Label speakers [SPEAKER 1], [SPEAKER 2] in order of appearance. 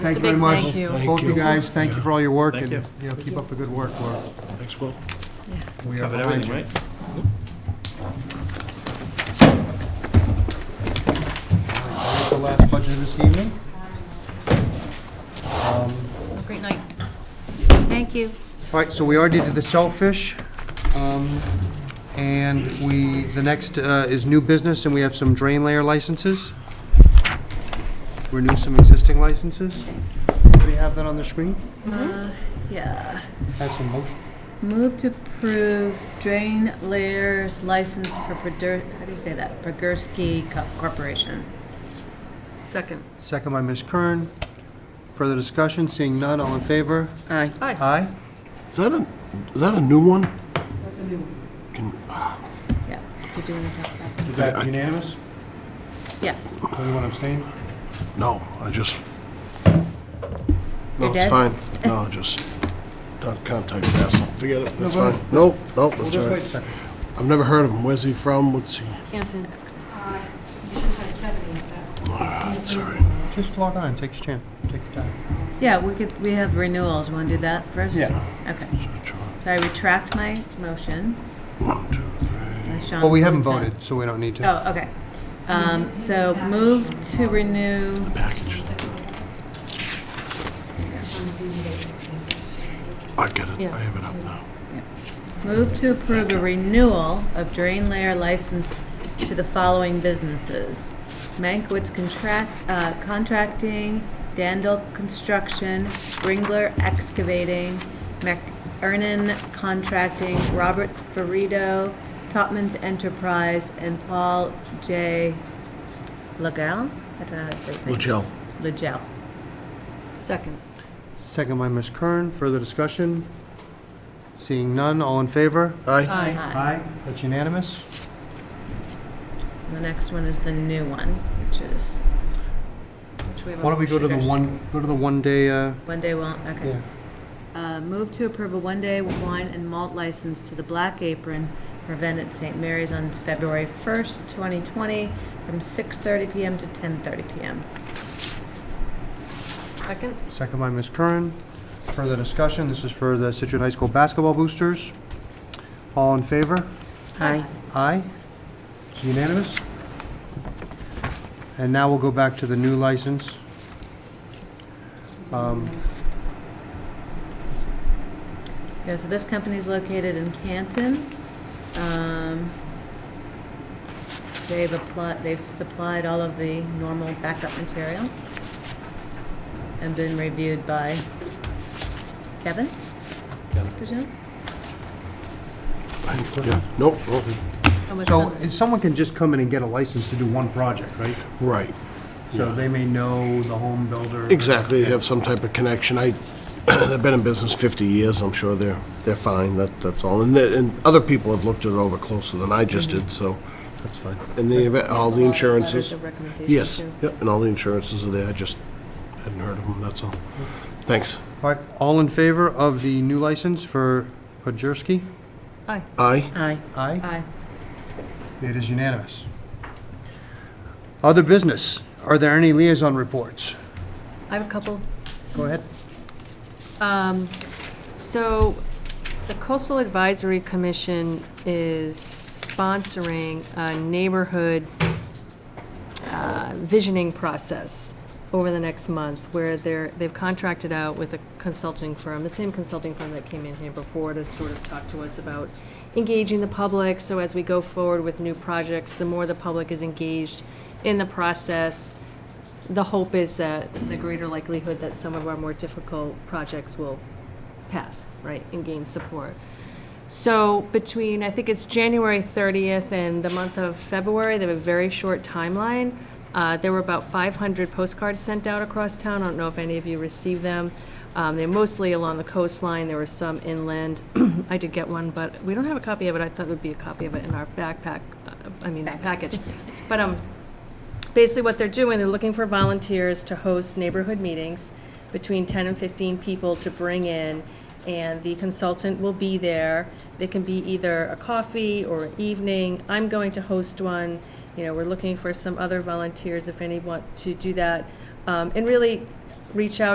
[SPEAKER 1] Thank you
[SPEAKER 2] a
[SPEAKER 1] very
[SPEAKER 2] big
[SPEAKER 1] much.
[SPEAKER 2] thank you.
[SPEAKER 3] Thank
[SPEAKER 1] Both you
[SPEAKER 3] you.
[SPEAKER 1] guys, thank you for all your work,
[SPEAKER 4] Thank
[SPEAKER 1] and,
[SPEAKER 4] you.
[SPEAKER 1] you know, keep up the good work, We're
[SPEAKER 3] Thanks, Will.
[SPEAKER 1] We are
[SPEAKER 4] Covered
[SPEAKER 1] behind
[SPEAKER 4] everything,
[SPEAKER 1] you.
[SPEAKER 4] right?
[SPEAKER 1] That's the last budget of this evening.
[SPEAKER 2] Great night.
[SPEAKER 5] Thank you.
[SPEAKER 1] All right, so we already did the shellfish, um, and we, the next uh, is new business, and we have some drain layer licenses. Renew some existing licenses. Do we have that on the screen?
[SPEAKER 5] Yeah.
[SPEAKER 1] Have some motion.
[SPEAKER 5] Move to approve drain layers license for, Produr- how do you say that? Pergursky Co- Corporation.
[SPEAKER 2] Second.
[SPEAKER 1] Second by Ms. Kern. Further discussion, seeing none, all in favor?
[SPEAKER 5] Aye.
[SPEAKER 2] Hi.
[SPEAKER 1] Aye?
[SPEAKER 3] Is that a, is that a new one?
[SPEAKER 5] Yeah. You do want to talk about that?
[SPEAKER 1] Is that unanimous?
[SPEAKER 5] Yes.
[SPEAKER 1] Anyone abstain?
[SPEAKER 3] No, I just.
[SPEAKER 5] You're
[SPEAKER 3] No, it's
[SPEAKER 5] dead?
[SPEAKER 3] fine. No, just don't contact Vassal. Forget it. That's fine. Nope, nope,
[SPEAKER 1] We'll
[SPEAKER 3] that's all
[SPEAKER 1] just wait a
[SPEAKER 3] right.
[SPEAKER 1] second.
[SPEAKER 3] I've never heard of him. Where's he from? What's he?
[SPEAKER 2] Canton.
[SPEAKER 3] That's all right.
[SPEAKER 1] Just log on and take your chance, take your time.
[SPEAKER 5] Yeah, we could, we have renewals. Want to do that first?
[SPEAKER 1] Yeah.
[SPEAKER 5] Okay.
[SPEAKER 3] Search on
[SPEAKER 5] So I retract my motion.
[SPEAKER 3] One, two, three.
[SPEAKER 5] as Sean
[SPEAKER 1] Well, we haven't
[SPEAKER 5] points out.
[SPEAKER 1] voted, so we don't need to.
[SPEAKER 5] Oh, okay. Um, so move to renew,
[SPEAKER 3] Package. I get it.
[SPEAKER 2] Yeah.
[SPEAKER 3] I have it up now.
[SPEAKER 5] move to approve a renewal of drain layer license to the following businesses. Mankwitz Contract, uh, Contracting, Dandel Construction, Ringler Excavating, McErnan Contracting, Roberts Burrito, Topman's Enterprise, and Paul J. Legel? I don't know how to say his name.
[SPEAKER 3] Legel.
[SPEAKER 5] Legel.
[SPEAKER 2] Second.
[SPEAKER 1] Second by Ms. Kern, further discussion? Seeing none, all in favor?
[SPEAKER 3] Aye.
[SPEAKER 2] Aye.
[SPEAKER 5] Hi.
[SPEAKER 1] Aye. That's unanimous.
[SPEAKER 5] The next one is the new one, which is
[SPEAKER 2] Which have
[SPEAKER 1] Why don't we go to the
[SPEAKER 2] sugars.
[SPEAKER 1] one, go to the one-day, uh,
[SPEAKER 5] one day wine, okay.
[SPEAKER 1] yeah.
[SPEAKER 5] Uh, Move to approve a one-day wine and malt license to the Black Apron for event at St. Mary's on February 1st, 2020, from 6:30 PM to 10:30 PM.
[SPEAKER 2] Second.
[SPEAKER 1] Second by Ms. Curran. Further discussion, this is for the Situate High School basketball boosters. All in favor?
[SPEAKER 2] Aye.
[SPEAKER 1] Aye. It's unanimous. And now we'll go back to the new license. Um,
[SPEAKER 5] Yeah, so this company is located in Canton. Um, They've applied, they've supplied all of the normal backup material and been reviewed by Kevin? Presume?
[SPEAKER 3] Yeah. Nope, nope.
[SPEAKER 2] And with
[SPEAKER 1] So,
[SPEAKER 2] some-
[SPEAKER 1] if someone can just come in and get a license to do one project, right?
[SPEAKER 3] Right.
[SPEAKER 1] So they may know the home builder.
[SPEAKER 3] Exactly, have some type of connection. I, they've been in business 50 years, I'm sure they're, they're fine, that, that's all. And, the- and other people have looked it over closer than I just did, so that's fine. And the, eva- all the
[SPEAKER 2] Letters
[SPEAKER 3] insurances,
[SPEAKER 2] of recommendation,
[SPEAKER 3] yes,
[SPEAKER 2] too.
[SPEAKER 3] yep, and all the insurances are there, I just hadn't heard of them, that's all. Thanks.
[SPEAKER 1] All right, all in favor of the new license for Podjerski?
[SPEAKER 2] Aye.
[SPEAKER 3] Aye,
[SPEAKER 2] Aye.
[SPEAKER 1] Aye.
[SPEAKER 5] Aye.
[SPEAKER 1] It is unanimous. Other business, are there any liaison reports?
[SPEAKER 2] I have a couple.
[SPEAKER 1] Go ahead.
[SPEAKER 2] Um, So the Coastal Advisory Commission is sponsoring a neighborhood uh, visioning process over the next month, where they're, they've contracted out with a consulting firm, the same consulting firm that came in here before to sort of talk to us about engaging the public, so as we go forward with new projects, the more the public is engaged in the process, the hope is that the greater likelihood that some of our more difficult projects will pass, right, and gain support. So between, I think it's January 30th and the month of February, they have a very short timeline. Uh, There were about 500 postcards sent out across town. I don't know if any of you received them. Um, They're mostly along the coastline. There were some inland. I did get one, but we don't have a copy of it. I thought there'd be a copy of it in our backpack, uh, I mean, package. But um, basically what they're doing, they're looking for volunteers to host neighborhood meetings between 10 and 15 people to bring in, and the consultant will be there. They can be either a coffee or an evening. I'm going to host one. You know, we're looking for some other volunteers if any want to do that. Um, And really reach out